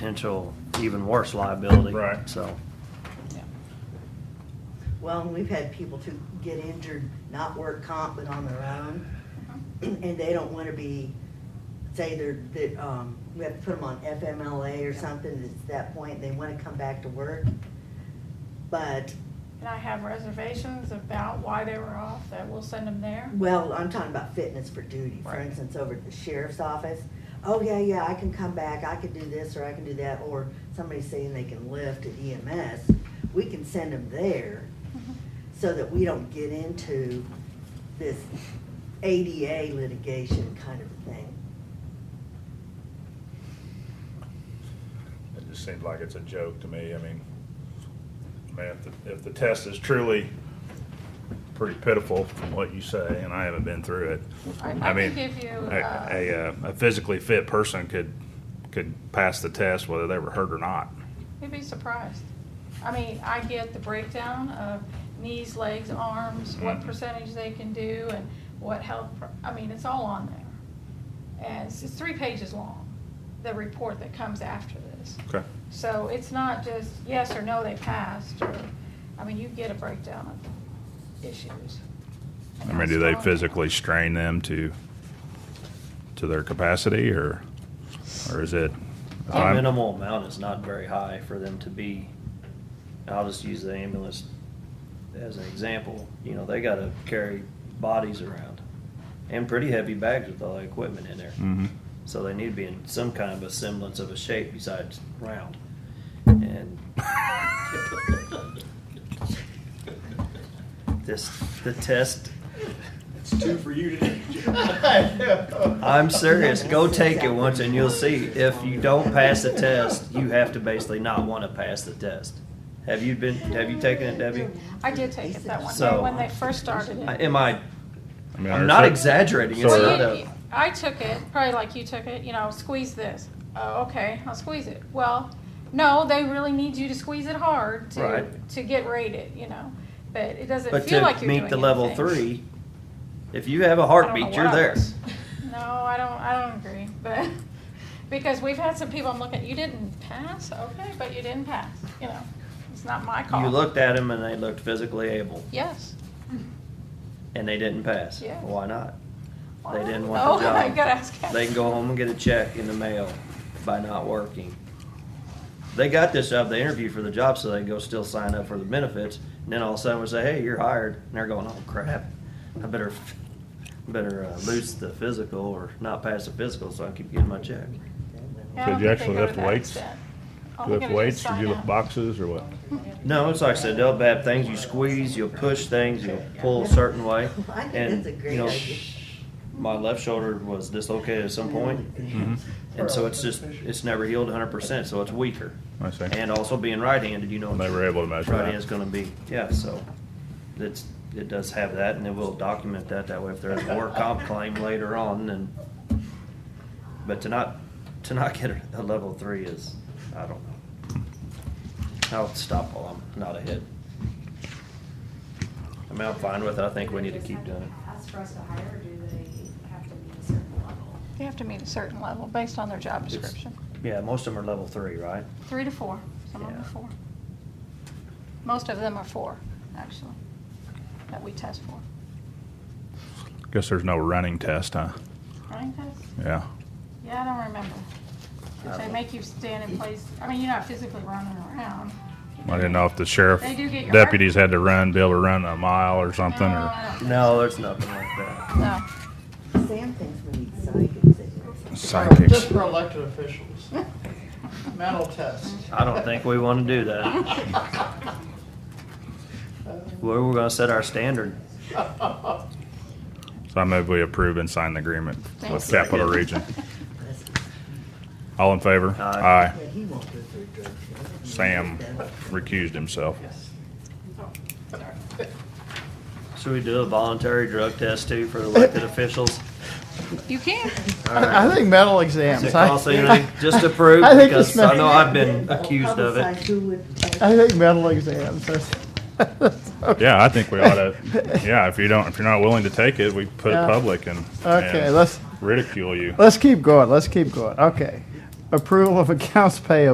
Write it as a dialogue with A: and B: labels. A: potential even worse liability.
B: Right.
A: So,
C: Yeah.
D: Well, and we've had people to get injured, not work comp, but on their own, and they don't wanna be, say they're, that, um, we have to put them on FMLA or something, it's that point, they wanna come back to work. But,
C: And I have reservations about why they were off, that we'll send them there.
D: well, I'm talking about fitness for duty, for
C: Right.
D: instance, over at the sheriff's office. Oh, yeah, yeah, I can come back, I can do this, or I can do that, or somebody's saying they can lift at EMS, we can send them there.
A: Mm-hmm.
D: so that we don't get into this ADA litigation kind of thing.
B: It just seems like it's a joke to me, I mean, I mean, if the, if the test is truly pretty pitiful from what you say, and I haven't been through it.
C: I- I can
B: mean,
C: give you,
B: a-
C: uh,
B: A, uh, a physically fit person could, could pass the test whether they were hurt or not.
C: You'd be surprised. I mean, I get the breakdown of knees, legs, arms, what
B: Mhm.
C: percentage they can do and what health, pro- I mean, it's all on there. And it's, it's three pages long, the report that comes after this.
B: Okay.
C: So it's not just yes or no, they passed, or, I mean, you get a breakdown of issues.
B: I mean, do they physically strain them to, to their capacity, or, or is it? if
A: the
B: I'm-
A: minimal amount is not very high for them to be, I'll just use the ambulance as an example. You know, they gotta carry bodies around and pretty heavy bags with all the equipment in there.
B: Mhm.
A: So they need to be in some kind of a semblance of a shape besides round. And this, the test,
E: It's two for you today.
A: I'm serious. Go take it once and you'll see. If you don't pass the test, you have to basically not want to pass the test. Have you been, have you taken it, Debbie?
C: I did take it that one day
A: So-
C: when they first started
A: I-
C: it.
A: Am I,
B: I mean,
A: I'm
B: or
A: not
B: is it-
A: exaggerating. It's
B: So-
A: not
C: Well, you-
A: a,
C: I took it, probably like you took it, you know, squeeze this. Oh, okay, I'll squeeze it. Well, no, they really need you to squeeze it hard to,
A: Right.
C: to get rated, you know, but it doesn't
A: but
C: feel like
A: to
C: you're
A: meet the
C: doing
A: level
C: anything.
A: three, if you have a
C: I don't know
A: heartbeat,
C: what
A: you're
C: I
A: there.
C: was. No, I don't, I don't agree, but, because we've had some people, I'm looking, you didn't pass, okay, but you didn't pass, you know, it's not my call.
A: You looked at them and they looked physically able.
C: Yes.
A: and they didn't pass.
C: Yes.
A: Why not?
C: Well,
A: They didn't
C: oh,
A: want the
C: I
A: job.
C: gotta ask him.
A: They can go home and get a check in the mail by not working. They got this job, they interviewed for the job, so they can go still sign up for the benefits, and then all of a sudden we say, hey, you're hired, and they're going, oh crap, I better, better uh, lose the physical or not pass the physical so I can keep getting my check.
C: Yeah, I
B: Did you
C: don't think they
B: actually
C: go
B: lift
C: to that
B: weights?
C: extent. Oh,
B: Do
C: All
B: you
C: they're
B: lift
C: gonna do is
B: weights, do
C: sign
B: you lift
C: up.
B: boxes, or what?
A: No, it's like I said, they'll have things, you squeeze, you'll push things, you'll pull a certain way.
D: I think
A: and,
D: that's a great
A: you know,
D: idea.
A: My left shoulder was dislocated at some point,
B: Mm-hmm.
A: and so it's just, it's never healed hundred percent, so it's weaker.
B: I see.
A: And also being right-handed, you know.
B: They were able to measure
A: Right
B: that.
A: hand's gonna be, yeah, so it's, it does have that, and it will document that, that way if there's a work comp claim later on, then. But to not, to not get a- a level three is, I don't know. I'll stop while I'm not ahead. I mean, I'm fine with it, I think we need to keep doing it.
F: Ask for us to hire, or do they have to meet a certain level?
C: They have to meet a certain level based on their job
A: It's-
C: description.
A: Yeah, most of them are level three, right?
C: Three to four, some of them are
A: Yeah.
C: four. Most of them are four, actually, that we test for.
B: Guess there's no running test, huh?
C: Running test?
B: Yeah.
C: Yeah, I don't remember.
A: I
C: If they
A: don't-
C: make you stand in place, I mean, you're not physically running around.
B: I didn't know if the sheriff
C: They do get your Uh,
B: deputies had to run, be able to run a mile or something,
C: No,
B: or
C: I don't-
A: No, there's nothing like that.
C: No.
D: Sam thinks we need psychics. E in
B: psychics.
E: Just for elected officials. Mental test.
A: I don't think we wanna do that. Where we're gonna set our standard.
B: So I move we approve and sign the agreement with
C: Thanks.
B: Capital Region. All in favor?
A: Aye.
D: But he won't go through drug testing.
B: Sam recused himself.
A: Should we do a voluntary drug test too for elected officials?
C: You can.
G: I I think mental exams.
A: Does it
G: I-
A: cost anything? Just to prove,
G: I think
A: because
G: it's
A: I
G: mental.
A: know I've been accused of
D: Publicize
A: it.
D: who would take
G: I think mental exams. are-
B: Yeah, I think we ought to, yeah, if you don't, if you're not willing to take it, we put it
G: Yeah.
B: public and.
G: Okay,
B: and
G: let's-
B: Ridicule you.
G: Let's keep going. Let's keep going. Okay. approval of accounts payable.